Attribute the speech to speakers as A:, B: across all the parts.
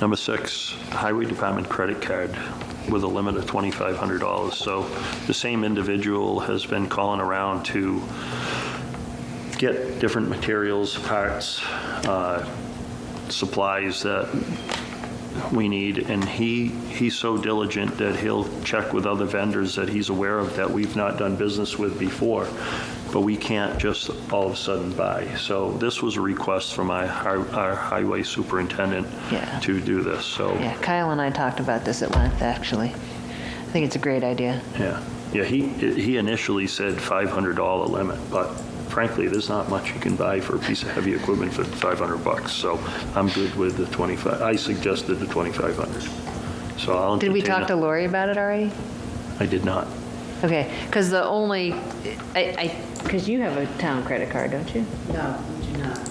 A: Number six, Highway Department credit card with a limit of $2,500. So the same individual has been calling around to get different materials, parts, uh, supplies that we need, and he, he's so diligent that he'll check with other vendors that he's aware of that we've not done business with before, but we can't just all of a sudden buy. So this was a request from my, hi- our highway superintendent
B: Yeah.
A: to do this, so,
B: Yeah, Kyle and I talked about this at length, actually. I think it's a great idea.
A: yeah. Yeah, he, he initially said $500 limit, but frankly, there's not much you can buy for a piece of heavy equipment for 500 bucks, so I'm good with the 25, I suggested the 2,500. So I'll
B: Did we
A: entertain
B: talk to
A: a-
B: Lori about it already?
A: I did not.
B: Okay, because the only, I, because you have a town credit card, don't you?
C: No, we do not.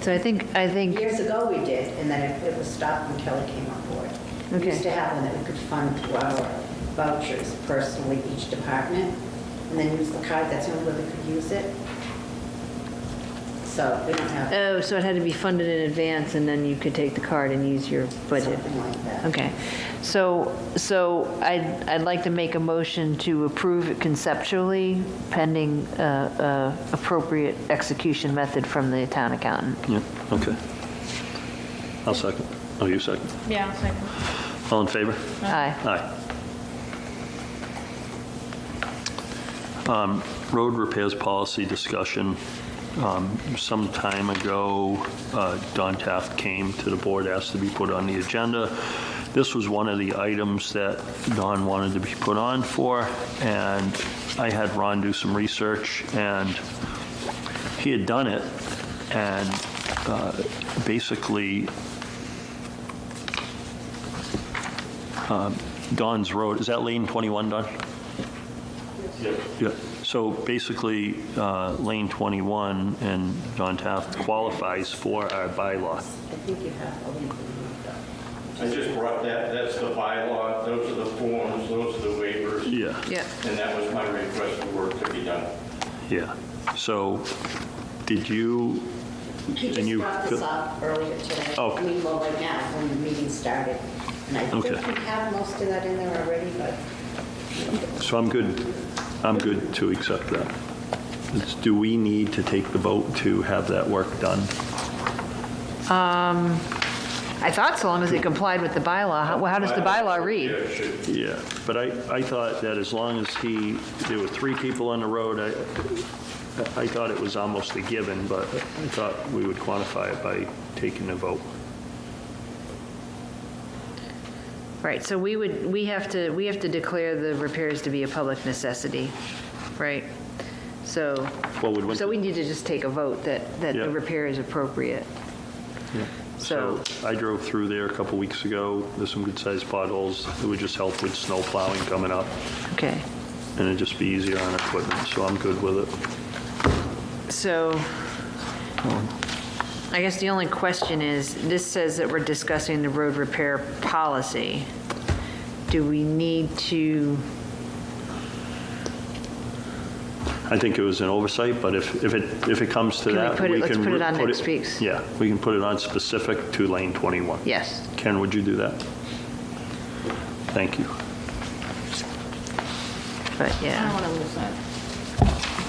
B: So I think, I think,
C: Years ago we did, and then it- it was stopped when Kelly came on board. We
B: Okay.
C: used to have one that we could fund through our vouchers personally, each department, and then use the card, that's the only way we could use it. So we don't have
B: oh, so it had to be funded in advance, and then you could take the card and use your budget.
C: something like that.
B: Okay, so, so I'd, I'd like to make a motion to approve it conceptually pending uh, uh, appropriate execution method from the town accountant.
A: Yeah, okay. I'll second. Oh, you second.
D: Yeah, second.
A: All in favor?
B: Aye.
A: Aye. Um, Road repairs policy discussion. Um, Some time ago, uh, Don Taft came to the board, asked to be put on the agenda. This was one of the items that Don wanted to be put on for, and I had Ron do some research, and he had done it, and uh, basically, Don's Road, is that Lane 21, Don? Yeah, so basically, uh, Lane 21 and Don Taft qualifies for our bylaw.
C: I think you have a link. in
E: I just brought that, that's the bylaw, those are the forms, those are the waivers.
A: Yeah.
B: Yeah.
E: And that was my request for work to be done.
A: Yeah, so did you,
C: there. He
A: And
C: just
A: you-
C: brought this up earlier today.
A: Oh.
C: I mean, well, right now, when the meeting started. And I think
A: Okay.
C: we have most of that in there already, but
A: so I'm good, I'm good to accept that. It's- Do we need to take the vote to have that work done?
B: I thought so long as it complied with the bylaw. How, how does the bylaw
E: Yeah,
B: read?
E: it should.
A: Yeah, but I, I thought that as long as he, there were three people on the road, I, I thought it was almost a given, but I thought we would quantify it by taking a vote.
B: Right, so we would, we have to, we have to declare the repairs to be a public necessity, right? So,
A: Well, would
B: so we need to just take a vote that, that
A: Yeah.
B: the repair is appropriate.
A: So I drove through there a couple weeks ago. There's some good-sized potholes. It would just help with snow plowing coming up,
B: Okay,
A: and it'd just be easier on equipment, so I'm good with it.
B: so I guess the only question is, this says that we're discussing the road repair policy. Do we need to,
A: I think it was an oversight, but if, if it, if it comes to
B: Can we
A: that, we
B: put
A: can...
B: it- let's put it
A: re-
B: on next week's.
A: Yeah, we can put it on specific to lane 21.
B: yes,
A: Karen, would you do that? Thank you.
B: but
D: I don't
B: yeah,
D: want to lose that.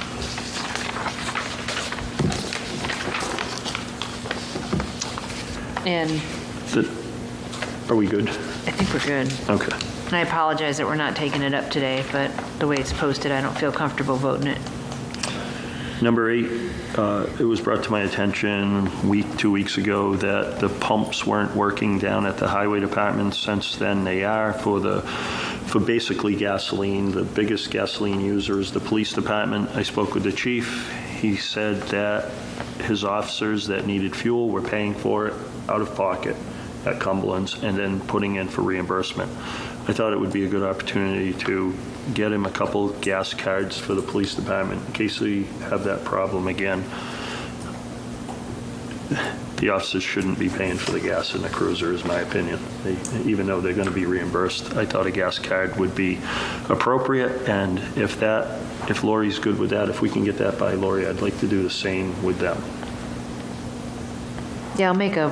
B: and
A: Th- Are we good?
B: I think we're good.
A: Okay.
B: And I apologize that we're not taking it up today, but the way it's posted, I don't feel comfortable voting it.
A: Number eight, uh, it was brought to my attention week, two weeks ago, that the pumps weren't working down at the highway department. Since then, they are for the, for basically gasoline. The biggest gasoline user is the police department. I spoke with the chief. He said that his officers that needed fuel were paying for it out of pocket at Cumberland's and then putting in for reimbursement. I thought it would be a good opportunity to get him a couple gas cards for the police department in case they have that problem again. The officers shouldn't be paying for the gas in the cruiser, is my opinion. They- Even though they're going to be reimbursed, I thought a gas card would be appropriate, and if that, if Lori's good with that, if we can get that by Lori, I'd like to do the same with them.
B: Yeah, I'll make a